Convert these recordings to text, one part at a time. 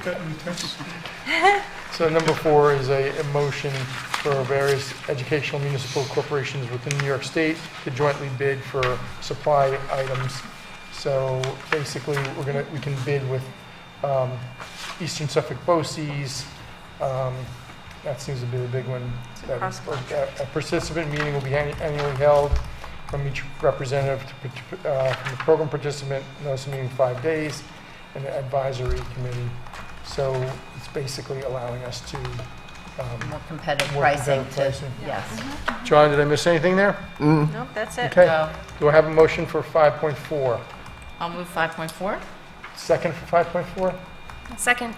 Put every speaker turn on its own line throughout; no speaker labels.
Cut and paste. So number four is a a motion for various educational municipal corporations within New York State to jointly bid for supply items. So basically, we're gonna, we can bid with um, Eastern Suffolk BOCES. um, That seems to be the big one.
a cross
That- A participant meeting will be annu- annually held from each representative to partic- uh, from the program participant, notice of meeting five days, and the advisory committee. So it's basically allowing us to, um,
More competitive
More
pricing
competitive
to,
pricing.
yes.
John, did I miss anything there?
Mm.
Nope, that's it.
Okay,
So
do I have a motion for 5.4?
I'll move 5.4.
Second for 5.4?
Second.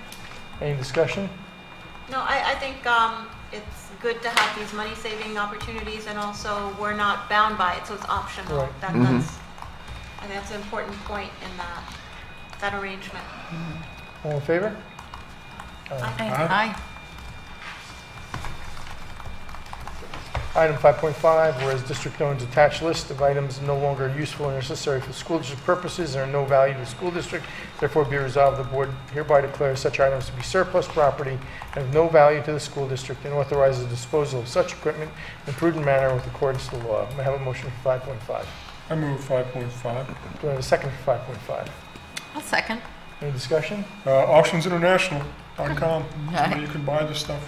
Any discussion?
No, I, I think um, it's good to have these money-saving opportunities, and also, we're not bound by it, so it's optional.
Right. Mm-hmm.
That- That's, I think that's an important point in that, that arrangement.
All in favor? Uh,
Aye.
Item 5.5, whereas district owns attached list of items no longer useful or necessary for school district purposes and are no value to the school district, therefore be resolved, the board hereby declares such items to be surplus property and of no value to the school district and authorizes disposal of such equipment in a prudent manner with accordance to the law. May I have a motion for 5.5?
I move five point five.
Do I have a second for 5.5?
I'll second.
Any discussion?
Uh, auctionsinternational.com, That's where you can buy this stuff.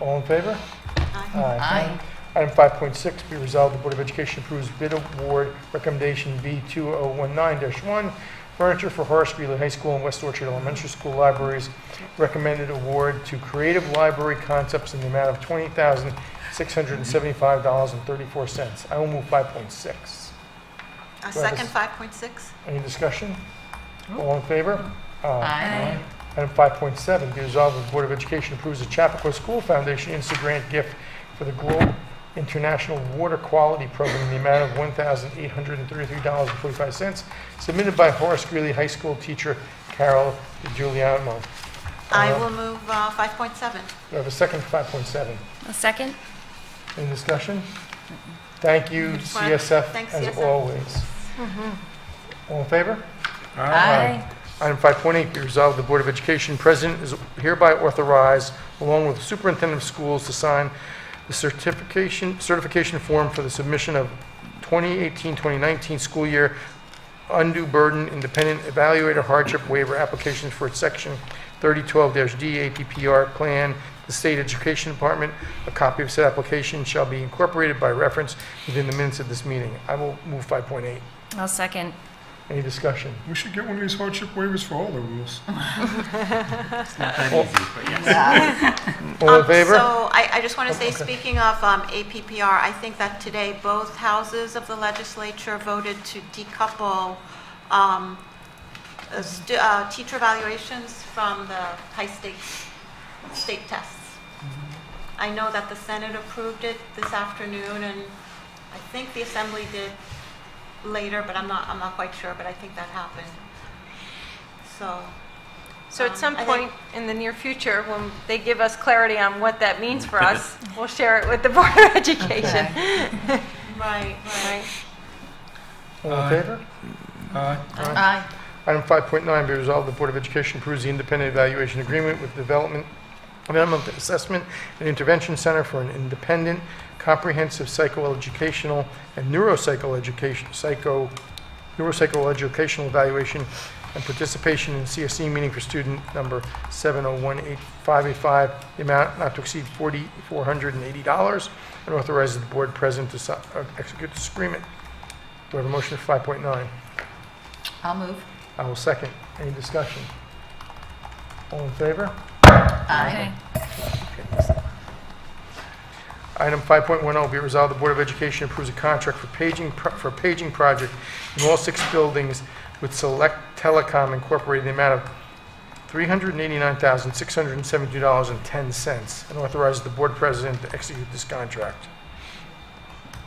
All in favor? Uh,
Aye.
Aye.
Item 5.6, be resolved, the Board of Education approves bid award recommendation B2019-1, furniture for Horace Greeley High School and West Orchard Elementary School libraries. Recommended award to Creative Library Concepts in the amount of $20,675.34. I will move 5.6.
A second 5.6?
Any discussion? All in favor?
Aye.
Item 5.7, be resolved that the Board of Education approves the Chappaqua School Foundation Insta Grant gift for the Globe International Water Quality Program in the amount of $1,833.45, submitted by Horace Greeley High School teacher Carol DiGiuliano.
I
Uh,
will move uh, 5.7.
Do I have a second for 5.7?
A second?
Any discussion? Thank you,
Good one.
CSF,
Thanks,
as
CSF.
always.
Mm-hmm.
All in favor?
Aye.
Item 5.8, be resolved, the Board of Education President is hereby authorized, along with the Superintendent of Schools, to sign the certification, certification form for the submission of 2018-2019 school year undue burden independent evaluator hardship waiver applications for its section 3012-D APPR plan, the State Education Department. A copy of said application shall be incorporated by reference within the minutes of this meeting. I will move 5.8.
I'll second.
Any discussion?
We should get one of these hardship waivers for all the rules.
All in
Um,
favor? Oh,
So I, I just want to say,
okay.
speaking of um, APPR, I think that today both houses of the legislature voted to decouple um, uh, stu- uh, teacher evaluations from the high-stakes state tests.
Mm-hmm.
I know that the Senate approved it this afternoon, and I think the Assembly did later, but I'm not, I'm not quite sure, but I think that happened. So,
So
Um,
at some
I
point
think-
in the near future, when they give us clarity on what that means for us, we'll share it with the Board of Education.
right, right.
Right?
All in
Aye.
favor?
Aye.
Aye.
Item 5.9, be resolved, the Board of Education approves the independent evaluation agreement with Development, Development Assessment and Intervention Center for an independent, comprehensive psychoeducational and neuropsychoeducation, psycho, neuropsychoeducational evaluation and participation in CSE meeting for student number 7018585, the amount not to exceed $4,480, and authorizes the board president to si- uh, execute this agreement. Do I have a motion for 5.9?
I'll move.
I will second. Any discussion? All in favor?
Aye.
Item 5.10, oh, be it resolved, the Board of Education approves a contract for paging, pro- for paging project in all six buildings with Select Telecom Incorporated in the amount of $389,672.10, and authorizes the Board President to execute this contract.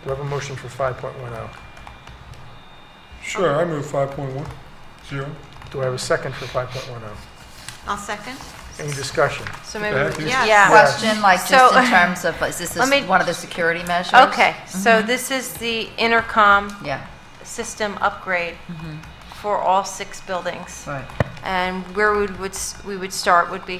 Do I have a motion for 5.10?
Sure, I move five point one zero.
Do I have a second for 5.10?
I'll second.
oh? Any discussion?
So maybe, we-
Yes.
yeah.
Question, like, just
So-
in terms of, is this
Let me-
is one of the security measures?
Okay,
Mm-hmm.
so this is the intercom
Yeah,
Mm-hmm.
system upgrade for all six buildings.
right.
And where we would, we would start would be